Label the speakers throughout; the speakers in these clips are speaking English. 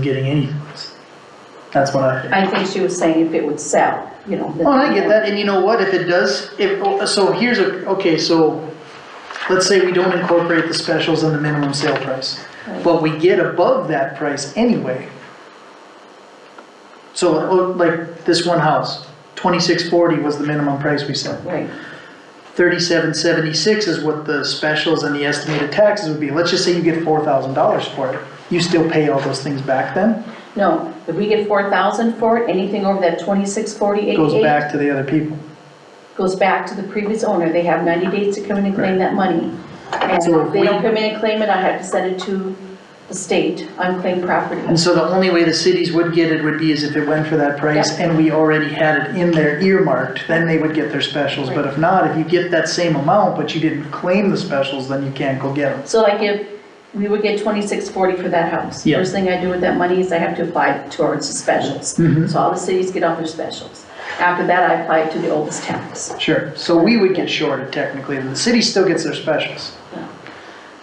Speaker 1: getting anyways. That's what I think.
Speaker 2: I think she was saying if it would sell, you know.
Speaker 1: Well, Oh, I get that, and you know what, if it does, if, oh, so here's a, okay, so, let's say we don't incorporate the specials and the minimum sale price, but we get above that price anyway. So, oh, like, this one house, twenty-six forty was the minimum price we set,
Speaker 2: Right,
Speaker 1: thirty-seven seventy-six is what the specials and the estimated taxes would be, let's just say you get four thousand dollars for it, you still pay all those things back then?
Speaker 2: no, if we get four thousand for it, anything over that twenty-six forty-eight
Speaker 1: Goes back to the other people.
Speaker 2: goes back to the previous owner, they have ninety days to come in and claim that money. And
Speaker 1: So if
Speaker 2: if they
Speaker 1: we-
Speaker 2: don't come in and claim it, I have to send it to the state, unclaimed property.
Speaker 1: And so the only way the cities would get it would be is if it went for that price and we already had it in there earmarked, then they would get their specials. But if not, if you get that same amount, but you didn't claim the specials, then you can't go get them.
Speaker 2: So like if we would get twenty-six forty for that house,
Speaker 1: Yeah.
Speaker 2: first thing I do with that money is I have to apply it towards the specials.
Speaker 1: Mhm.
Speaker 2: So all the cities get off their specials. After that, I apply it to the oldest tax.
Speaker 1: Sure, so we would get shorted technically, and the city still gets their specials.
Speaker 2: Yeah.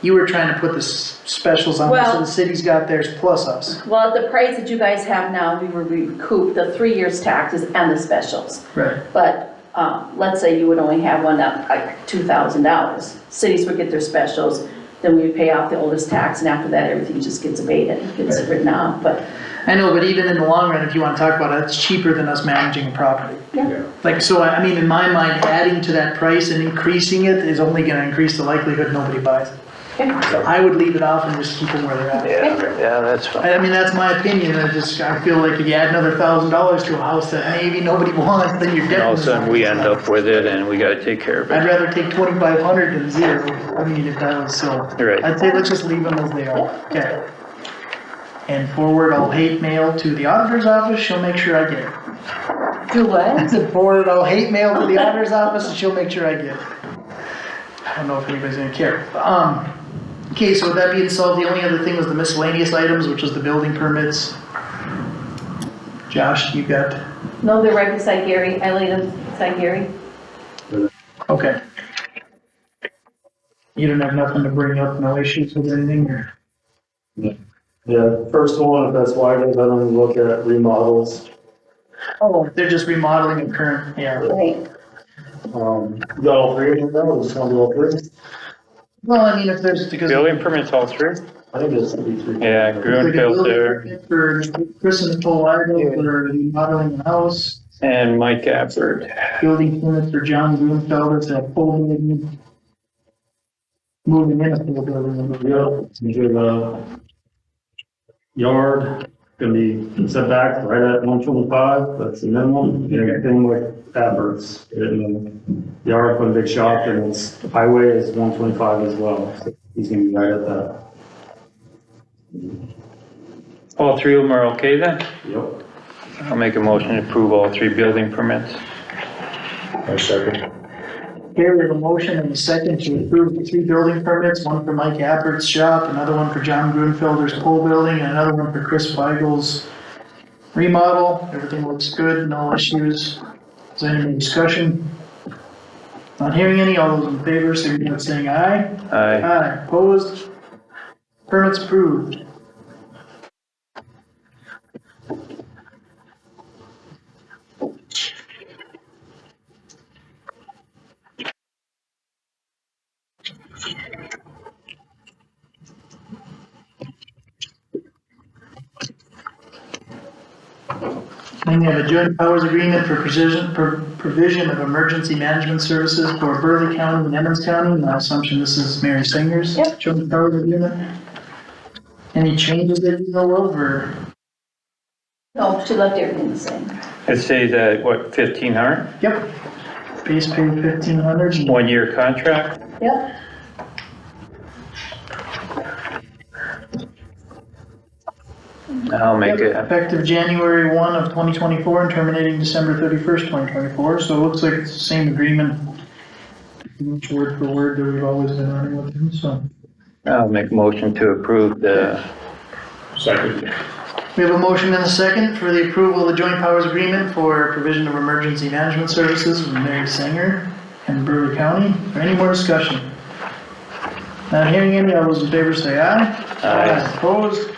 Speaker 1: You were trying to put the s- specials on, so
Speaker 2: Well-
Speaker 1: the city's got theirs plus us.
Speaker 2: Well, at the price that you guys have now, we would recoup the three years taxes and the specials.
Speaker 1: Right.
Speaker 2: But, um, let's say you would only have one up like two thousand dollars. Cities would get their specials, then we would pay off the oldest tax and after that, everything just gets abated, gets written off, but,
Speaker 1: I know, but even in the long run, if you wanna talk about it, it's cheaper than us managing a property.
Speaker 2: yeah.
Speaker 1: Like, so I I mean, in my mind, adding to that price and increasing it is only gonna increase the likelihood nobody buys it.
Speaker 2: Okay.
Speaker 1: So I would leave it off and just keep them where they're at.
Speaker 3: Yeah, yeah, that's fine.
Speaker 1: I I mean, that's my opinion, I just, I feel like if you add another thousand dollars to a house that maybe nobody wants, then you're
Speaker 3: And
Speaker 1: dead.
Speaker 3: all of a sudden, we end up with it and we gotta take care of
Speaker 1: I'd
Speaker 3: it.
Speaker 1: rather take twenty-five hundred than zero, I mean, if that was so.
Speaker 3: Right.
Speaker 1: I'd say let's just leave them as they are, okay. And forward all hate mail to the auditor's office, she'll make sure I get it.
Speaker 2: Do what?
Speaker 1: I said, forward all hate mail to the auditor's office and she'll make sure I get it. I don't know if anybody's gonna care. Um, okay, so with that being solved, the only other thing was the miscellaneous items, which was the building permits. Josh, you got,
Speaker 2: No, they're right beside Gary, I laid them beside Gary.
Speaker 1: okay. You don't have nothing to bring up, no issues with anything or?
Speaker 4: The first one, if that's why, I don't even look at remodels.
Speaker 1: Oh, they're just remodeling a current, yeah.
Speaker 2: Right.
Speaker 4: Um, you got all three of them now, just one of all three?
Speaker 1: Well, I mean, if there's, because.
Speaker 3: Building permits all through?
Speaker 4: I think there's gonna be three.
Speaker 3: Yeah,
Speaker 1: Like a
Speaker 3: Grunfeld
Speaker 1: building
Speaker 3: there
Speaker 1: permit For Chris and Nicole Ireland, that are remodeling the house.
Speaker 3: and Mike Appert.
Speaker 1: building permits for John Grunfelder to fully admit- moving in a full building.
Speaker 4: Yep, it's gonna be the uh, yard, gonna be set back right at one twenty-five, that's the minimum. Anything like adverts, and the yard for the big shop, and it's highway is one twenty-five as well. So He's gonna be right at that,
Speaker 3: All three of them are okay then?
Speaker 4: yep.
Speaker 3: I'll make a motion to approve all three building permits.
Speaker 1: Here we have a motion and a second to approve the three building permits, one for Mike Appert's shop, another one for John Grunfelder's pole building, and another one for Chris Weigel's remodel. Everything looks good, no issues. Is there any discussion? Not hearing any, all those in favor, signify by saying aye.
Speaker 3: Aye.
Speaker 1: Aye, opposed? Permits approved. And we have a joint powers agreement for precision, for provision of emergency management services for Burley County and Emmons County. And My assumption, this is Mary Singer's
Speaker 2: Yep.
Speaker 1: joint powers agreement. Any changes that you know of, or?
Speaker 2: No, Oh, she left everything the same.
Speaker 3: It stays at what, fifteen hundred?
Speaker 1: Yep. Base pay fifteen hundred.
Speaker 3: One year contract?
Speaker 2: Yep.
Speaker 3: I'll make it.
Speaker 1: Effective January one of twenty twenty-four and terminating December thirty-first, twenty twenty-four, so it looks like it's the same agreement. Word for word that we've always been running with them, so.
Speaker 3: I'll make a motion to approve the,
Speaker 1: We have a motion and a second for the approval of the joint powers agreement for provision of emergency management services with Mary Sanger and Brewer County. For any more discussion? Not hearing any, all those in favor say aye.
Speaker 3: Aye.
Speaker 1: Opposed?